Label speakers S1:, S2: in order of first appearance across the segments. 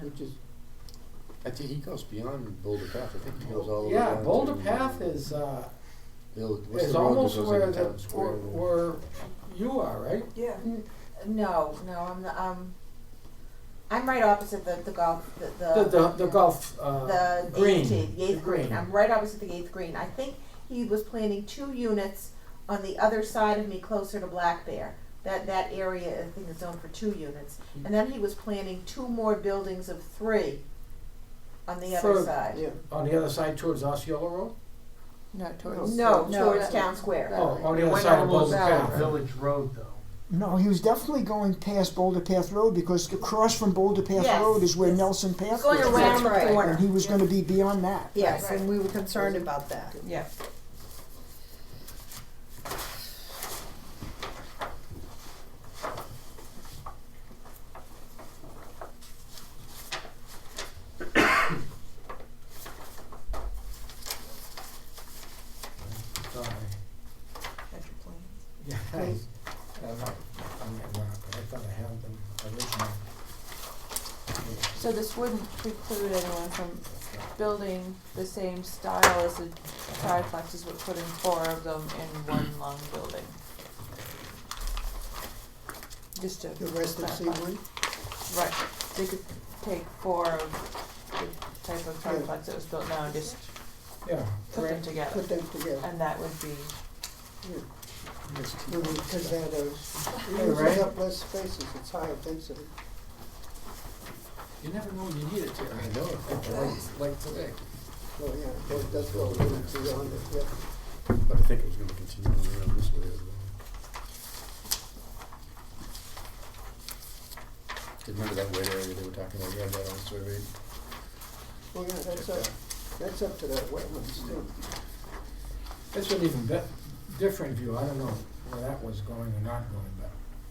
S1: which is, I think he goes beyond Boulder Path, I think he goes all the way down
S2: Yeah,
S1: to.
S2: Boulder Path is, uh,
S1: Bill- what's
S2: is
S1: the road that
S2: almost
S1: goes
S2: where
S1: into
S2: the,
S1: town square?
S2: where, where you are, right?
S3: Yeah.
S4: N- No, no, I'm, the- um, I'm right opposite the, the golf, the,
S2: The,
S4: the.
S2: the, the golf, uh,
S4: The
S2: green.
S4: eighth, the eighth green, I'm right opposite the eighth green, I think he was planning two units on the other side of me closer to Black Bear. That, that area, I think is zoned for two units, and then he was planning two more buildings of three on the other
S2: For-
S4: side.
S5: Yeah.
S2: On the other side towards Osceola Road?
S5: No, towards.
S4: No,
S5: no,
S4: towards
S5: that-
S4: Town Square.
S5: that
S2: Oh,
S5: way.
S2: on the
S6: It
S2: other
S6: went
S2: side of
S6: almost
S2: Boulder
S6: down
S2: Path.
S6: Village Road though.
S7: No, he was definitely going past Boulder Path Road because across from Boulder Path
S4: Yes,
S7: Road is where
S4: yes.
S7: Nelson Path
S4: Going
S7: was.
S4: around the
S5: That's right.
S7: And he
S4: corner,
S7: was gonna be beyond that.
S5: Yes,
S4: Right.
S5: and we were concerned about that.
S3: Yeah.
S2: Sorry.
S3: That's your plan.
S2: Yeah, I, I'm not, I'm not, but I thought I had them originally.
S3: So this wouldn't preclude anyone from building the same style as the triplexes, but putting four of them in one long building. Just to.
S5: The rest of C
S3: clarify.
S5: one?
S3: Right, they could take four of the type of
S5: Yeah.
S3: triplex that was built now and just
S2: Yeah,
S3: put them
S5: Right,
S3: together,
S5: Put them together.
S3: and that would be,
S2: just keep-
S5: Because that is,
S2: Hey,
S5: uses
S2: Ray.
S5: up less spaces, it's higher density.
S2: you never know when you need it to.
S1: I know,
S2: Like, like today.
S5: Oh, yeah, that does go a little beyond it, yeah.
S1: but I think it was gonna continue on around this way as well. Remember that wet area they were talking about, you had that on survey?
S5: Well, yeah, that's
S1: Check
S5: up, that's up to that wetlands too.
S2: That's an even bit, different view, I don't know where that was going or not going, but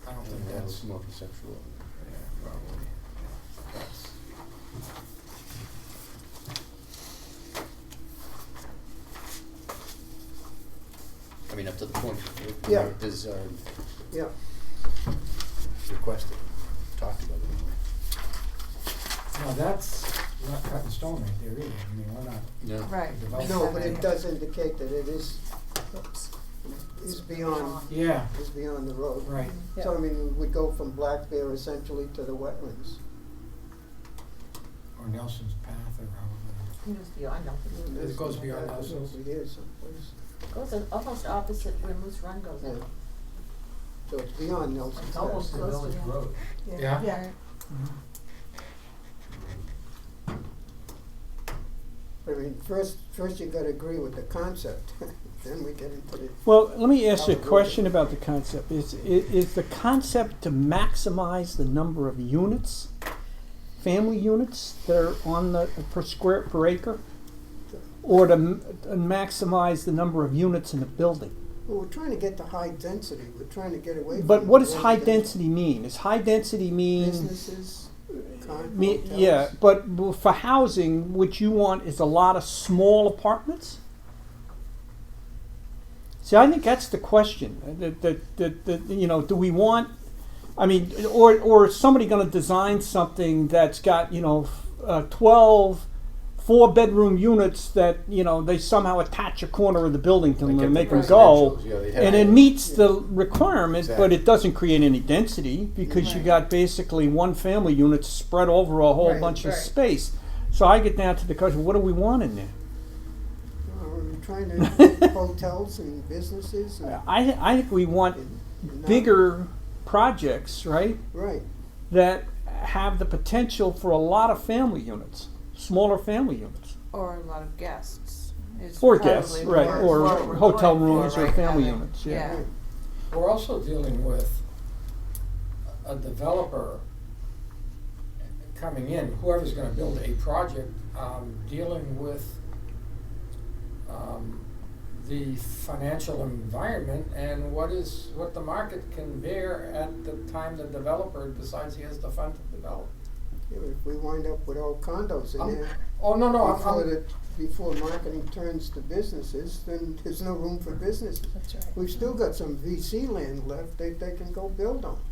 S2: I don't think
S1: That was
S2: that's,
S1: more conceptual,
S2: yeah,
S1: probably.
S2: that's.
S1: I mean, up to the point
S5: Yeah.
S1: where this, um,
S5: Yeah,
S1: requested, talked about it anyway.
S2: Now, that's not cut in stone right there either, I mean, we're not
S1: No.
S3: right.
S7: Oh.
S2: developing.
S5: no, but it does indicate that it is, is beyond,
S2: Yeah,
S5: is beyond the road.
S2: right,
S5: So I mean, we go from Black Bear essentially to the wetlands.
S2: or Nelson's Path or however.
S4: He was beyond Nelson.
S2: It goes beyond houses.
S5: It is someplace,
S4: Goes al- almost opposite where Moose Run goes
S5: yeah.
S4: in.
S5: So it's beyond Nelson's.
S6: It's almost a
S4: Close to
S6: village
S4: that.
S6: road.
S2: Yeah.
S4: Yeah.
S5: I mean, first, first you gotta agree with the concept, then we get into the,
S8: Well, let me ask you a
S3: Oh,
S5: Probably.
S8: question about the concept. Is, i- is the concept to maximize the number of units, family units that are on the, per square, per acre? Or to m- to maximize the number of units in a building?
S5: well, we're trying to get to high density, we're trying to get away from.
S8: But what does
S5: the
S8: high
S5: residential
S8: density mean? Is high density mean?
S5: Businesses, con-
S8: me-
S5: hotels.
S8: Yeah, but w- for housing, what you want is a lot of small apartments? See, I think that's the question. uh, That, that, that, that, you know, do we want, I mean, or, or is somebody going to design something that's got, you know, f- uh, 12 four bedroom units that, you know, they somehow attach a corner of the building to them
S1: Like
S8: and
S1: at
S8: make
S1: the
S8: them go?
S1: residentials, yeah, they had-
S8: And it meets the requirement, but
S1: Exactly.
S8: it doesn't create any density because you
S4: Right.
S8: got basically one family unit spread over a whole
S5: Right,
S8: bunch
S4: right.
S8: of space. So I get down to the question, what do we want in there?
S5: Or we're trying to, hotels and businesses and.
S8: I, I think we want
S5: and not-
S8: bigger projects, right,
S5: Right,
S8: that have the potential for a lot of family units, smaller family units.
S3: Or a lot of guests is
S8: Or
S3: probably
S8: guests,
S3: what
S8: right,
S3: we're-
S8: or
S3: what we're
S8: hotel
S3: going for
S8: rooms or
S3: right
S8: family
S3: now.
S8: units, yeah.
S3: Yeah.
S2: We're also dealing with a a developer coming in, whoever's gonna build a project, um, dealing with um, the financial environment and what is, what the market can bear at the time the developer decides he has the fund to develop.
S5: if we wind up with all condos
S2: Um,
S5: in there,
S2: Oh, no, no, I'm,
S5: before
S2: I'm,
S5: the, before marketing turns to businesses, then there's no room for businesses.
S4: That's right.
S5: We've still got some VC land left that they can go build on.